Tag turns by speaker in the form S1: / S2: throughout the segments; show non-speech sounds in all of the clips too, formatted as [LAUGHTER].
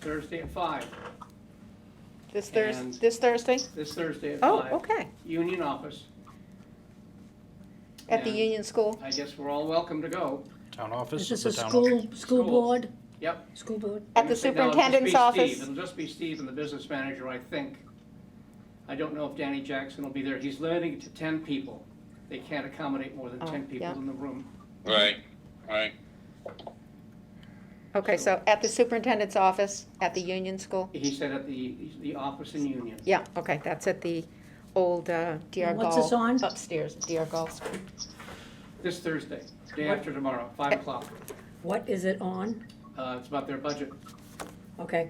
S1: Thursday at five,
S2: This
S1: And-
S2: Thursday, this Thursday?
S1: this Thursday at
S2: Oh,
S1: five.
S2: okay.
S1: Union office.
S2: At the
S1: And
S2: Union School?
S1: I guess we're all welcome to go.
S3: Town office?
S4: Is this a
S3: the town
S4: school, school
S1: School.
S4: board?
S1: Yep.
S4: School board?
S2: At
S1: No, it'll
S2: the
S1: just be
S2: superintendent's
S1: Steve.
S2: office?
S1: It'll just be Steve and the business manager, I think. I don't know if Danny Jackson will be there. He's limiting it to ten people. They can't accommodate more than
S2: Oh,
S1: ten people
S2: yeah.
S1: in the room.
S5: Right, right.
S2: Okay, so at the superintendent's office, at the Union School?
S1: He said at the, the office in Union.
S2: Yeah, okay, that's at the old uh, DR
S4: And what's this
S2: Gall.
S4: on?
S2: Upstairs, DR Gall School.
S1: This Thursday, day
S4: What?
S1: after tomorrow, five o'clock.
S4: What is it on?
S1: Uh, it's about their budget.
S4: Okay,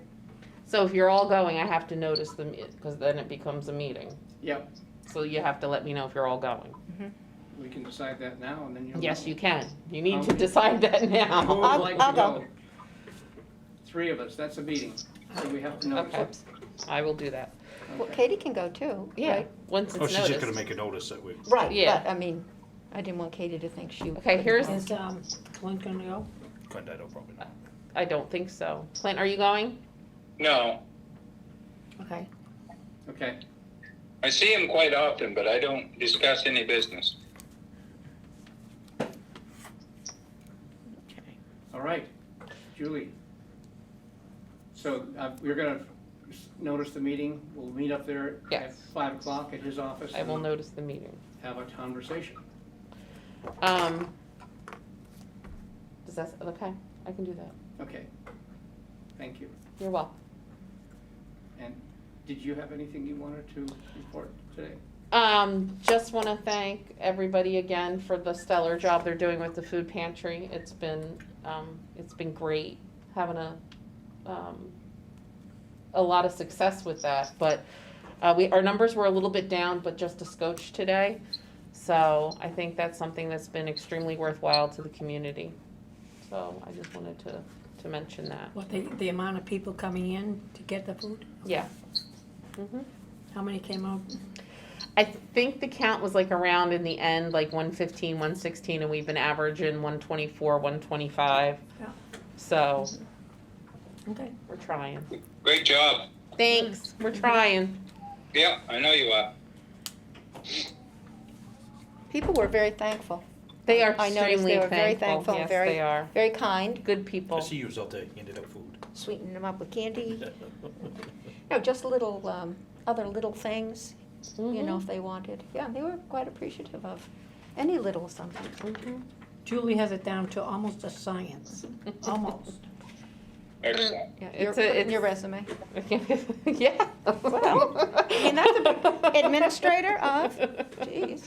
S6: So if you're all going, I have to notice them, because then it becomes a meeting.
S1: Yep,
S6: So you have to let me know if you're all going.
S1: we can decide that now and then you'll.
S6: Yes,
S1: know.
S6: you can. You need to
S1: Okay. [LAUGHS]
S6: decide that
S1: Who would
S6: now.
S2: I'll-
S1: like to
S2: I'll go.
S1: Three of us, that's a meeting, so we have to
S6: Okay,
S1: notice.
S6: I will do that.
S2: Well,
S1: Okay.
S2: Katie can go too,
S6: Yeah,
S2: right?
S6: once
S3: Oh,
S6: it's
S3: she's just gonna
S6: noticed.
S3: make a notice that we,
S2: Right,
S6: Yeah.
S2: but, I mean, I didn't want Katie to think she.
S6: Okay, here's-
S4: is, um, Clint gonna go?
S3: Clint, I don't probably know.
S6: I don't think so. Clint, are you going?
S5: No,
S2: Okay,
S1: Okay,
S5: I see him quite often, but I don't discuss any business.
S1: all right, Julie. So, uh, we're gonna s- notice the meeting, we'll meet up there at
S6: Yes.
S1: five o'clock at his office
S6: I will
S1: and
S6: notice the meeting.
S1: have a conversation.
S6: Um, does that, okay, I can do that.
S1: Okay, thank you.
S6: You're welcome.
S1: And did you have anything you wanted to report today?
S6: Um, just want to thank everybody again for the stellar job they're doing with the food pantry. It's been, um, it's been great having a, um, a lot of success with that. But uh, we, our numbers were a little bit down, but just a scotch today. So I think that's something that's been extremely worthwhile to the community. So I just wanted to, to mention that.
S4: What, the, the amount of people coming in to get the food?
S6: Yeah. Mhm.
S4: How many came out?
S6: I think the count was like around in the end, like 115, 116, and we've been averaging 124, 125.
S4: Yeah.
S6: So
S4: Okay,
S6: we're trying.
S5: Great job.
S6: Thanks. We're trying.
S5: Yeah, I know you are.
S2: people were very thankful,
S6: They are
S2: I noticed
S6: extremely
S2: they were very thankful
S6: thankful.
S2: and
S6: Yes,
S2: very-
S6: they are.
S2: very kind,
S6: Good
S3: I
S6: people.
S3: see you was out there handed out
S6: [LAUGHS]
S3: food.
S2: sweetened them up with candy. No, just little, um, other little things, you
S6: Mm-hmm.
S2: know, if they wanted. Yeah, they were quite appreciative of any little something.
S6: Mhm.
S4: Julie has it down to almost a science, almost.
S5: Excellent. [LAUGHS]
S2: Yeah,
S6: It's
S2: your,
S6: a-
S2: put it in
S6: it's-
S2: your resume.
S6: Mhm. [LAUGHS] yeah.
S2: Well, I mean, that's
S6: [LAUGHS]
S2: a big administrator of- Jeez.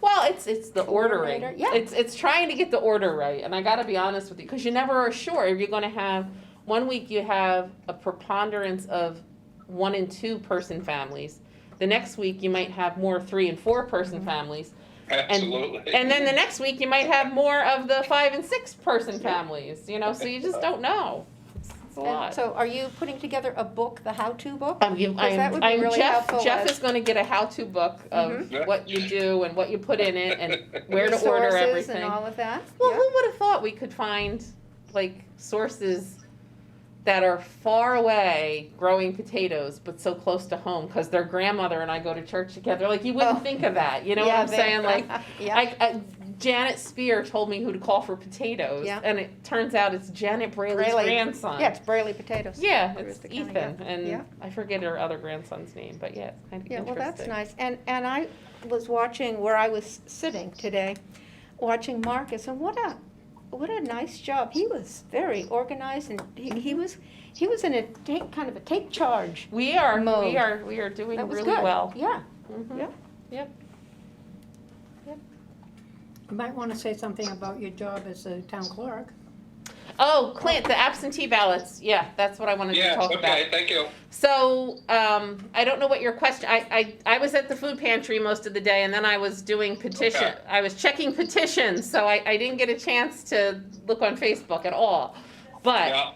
S6: Well, it's it's the ordering.
S2: Coordinator, yeah.
S6: It's it's trying to get the order right, and I got to be honest with you because you never are sure. You're going to have one week you have a preponderance of one and two person families. The next week you might have more three and four
S2: Mm-hmm.
S6: person families,
S5: Absolutely.
S6: and then the next week you might have more of the five and six person families. You know, so you just don't know. It's, it's a
S2: And
S6: lot.
S2: so are you putting together a book, the how-to book?
S6: I'm, giv-
S2: 'Cause
S6: I'm,
S2: that would be
S6: I'm
S2: really
S6: Jeff.
S2: helpful
S6: Jeff
S2: as-
S6: is going to get a how-to book of
S5: Mhm.
S6: what you do and what you put in it and where to order
S2: Resources
S6: everything.
S2: and all of that?
S6: Well,
S2: Yeah.
S6: who would have thought we could find like sources that are far away growing potatoes but so close to home because their grandmother and I go to church together. Like you wouldn't
S2: Oh.
S6: think of that, you know
S2: Yeah,
S6: what I'm
S2: they- [LAUGHS]
S6: saying? Like
S2: Yeah,
S6: I, I, Janet Spear told me who to call for potatoes,
S2: Yeah.
S6: and it turns out it's Janet Braley's
S2: Braley.
S6: grandson.
S2: yeah, it's Brayley potatoes.
S6: Yeah,
S2: Where
S6: it's
S2: is the county,
S6: Ethan, and
S2: Yeah.
S6: I forget her other grandson's name, but yeah, it's kind of
S2: Yeah, well,
S6: interesting.
S2: that's nice. And, and I was watching where I was sitting today, watching Marcus, and what a, what a nice job. He was very organized and he, he
S6: Mm-hmm.
S2: was, he was in a take, kind of a take charge.
S6: We are,
S2: Mode.
S6: we are, we are doing
S2: That was
S6: really
S2: good.
S6: well.
S2: Yeah.
S6: Mhm.
S2: Yeah.
S4: You might wanna say something about your job as a town clerk.
S6: Oh, Clint, the absentee ballots. Yeah, that's what I wanted to
S5: Yeah,
S6: talk about.
S5: okay, thank you.
S6: So, um, I don't know what your question, I, I, I was at the food pantry most of the day and then I was doing petition,
S5: Okay.
S6: I was checking petitions, so I, I didn't get a chance to look on Facebook at all. But,
S5: Yeah,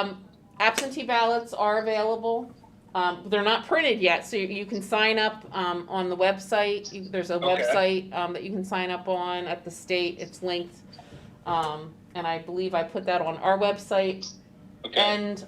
S6: um, absentee ballots are available. Um, they're not printed yet, so you, you can sign up, um, on the website. You- There's a
S5: Okay.
S6: website, um, that you can sign up on at the state. It's linked. Um, and I believe I put that on our website
S5: okay.
S6: and